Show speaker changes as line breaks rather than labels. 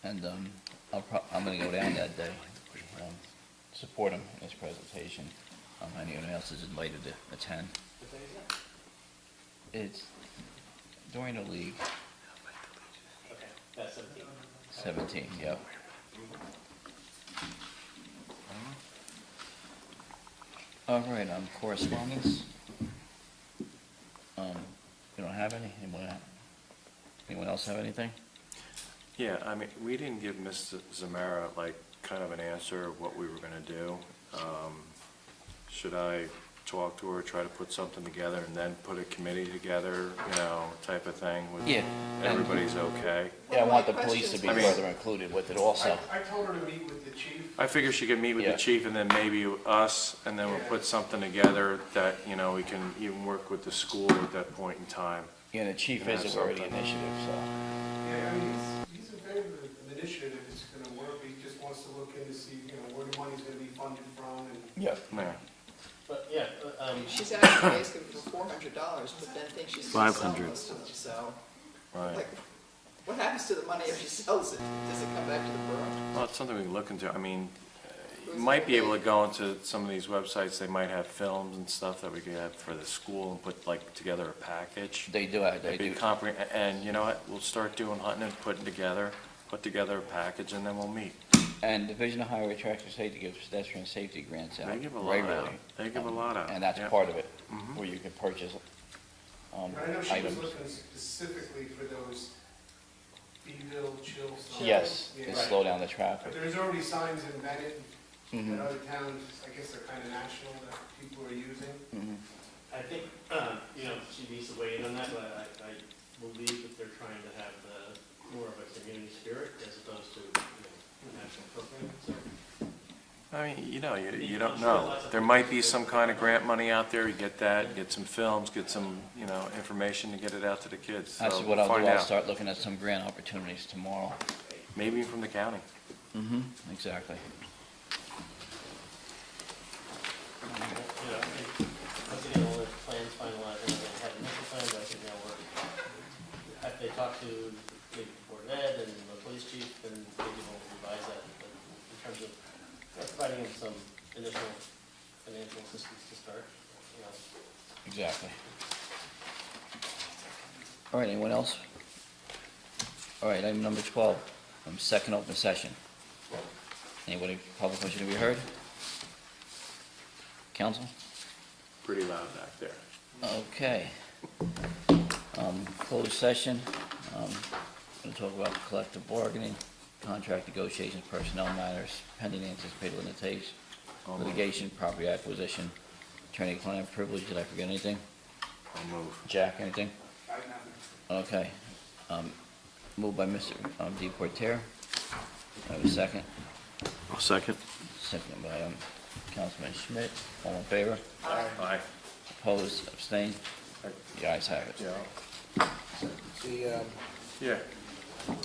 And um, I'll prob, I'm going to go down that day, um, support him in his presentation. Um, Anyone else is invited to attend. It's during the league,
Okay, that's
17,
seventeen.
yep. All right, um, correspondence? Um, You don't have any? Anyone, anyone else have anything?
Yeah, I mean, we didn't give Ms. Zamara, like, kind of an answer of what we were gonna do. Um, Should I talk to her, try to put something together, and then put a committee together, you know, type of thing? with
Yeah.
Everybody's okay?
Yeah, I want the police to be
I mean-
further included with it also.
I, I told her to meet with the chief.
I figure she could meet with
Yeah.
the chief and then maybe us, and then we'll put something together that, you know, we can even work with the school at that point in time.
Yeah, the chief
Can I
is
have
a worthy
something?
initiative, so.
Yeah, I mean, he's, he's in favor of the initiative, if it's gonna work, he just wants to look in to see, you know, where the money's gonna be funded from, and
Yeah.
Yeah.
But, yeah, uh, um,
She's actually asking for four hundred dollars, but then thinks she's gonna sell
500.
most of them, so,
Right.
like, what happens to the money if she sells it? Does it come back to the borough?
Well, it's something we can look into. I mean, uh, you might be able to go into some of these websites, they might have films and stuff that we could have for the school and put like together a package.
They do, uh, they
It'd be
do.
compre, and you know what, we'll start doing hunting and putting together, put together a package and then we'll meet.
And Division of Highway Traffic Safety gives pedestrian safety grants out
They give a lot out.
regularly.
They give a lot out.
And that's
Yeah.
part of it,
Mhm.
where you can purchase um,
I know she was
items.
looking specifically for those Beville chill signs.
Yes,
Yeah.
to slow down the
But
traffic.
there's already signs in Bennett and
Mhm.
other towns, I guess they're kinda national, that people are using.
Mhm.
I think, uh, you know, she needs to weigh in on that, but I, I believe that they're trying to have the, more of a community spirit as opposed to, you know, national program, so.
I mean, you know, you, you
I'm
don't
sure
know.
lots of
There
people-
might be some kind of grant money out there, you get that, get some films, get some, you know, information to get it out to the kids.
That's
So
what I'll do.
find
I'll
out.
start looking at some grant opportunities tomorrow.
Maybe from the county.
Mm-hmm. Exactly.
You know, I think, once again, all the plans finalized, and they had initial plans, I think now we're, if they talk to the board of ed and the police chief, then maybe we'll revise that, but in terms of you know, providing them some initial financial assistance to start, you know.
Exactly. All right, anyone else? All right, item number 12, um, second open session. Anybody, public wish to be heard? Council?
Pretty loud back there.
Okay. Um, Closed session, um, going to talk about collective bargaining, contract negotiations, personnel matters, pending anticipated limitations,
I'll move.
litigation, property acquisition, attorney-client privilege, did I forget anything?
I'll move.
Jack, anything?
I don't know.
Okay. Um, Moved by Mr. um, Deportaire. I have a second.
I'll second.
Second by um, Councilman Schmidt. All in favor?
Aye.
Opposed, abstained? The ayes have it.
Yeah.
The, um,
Yeah.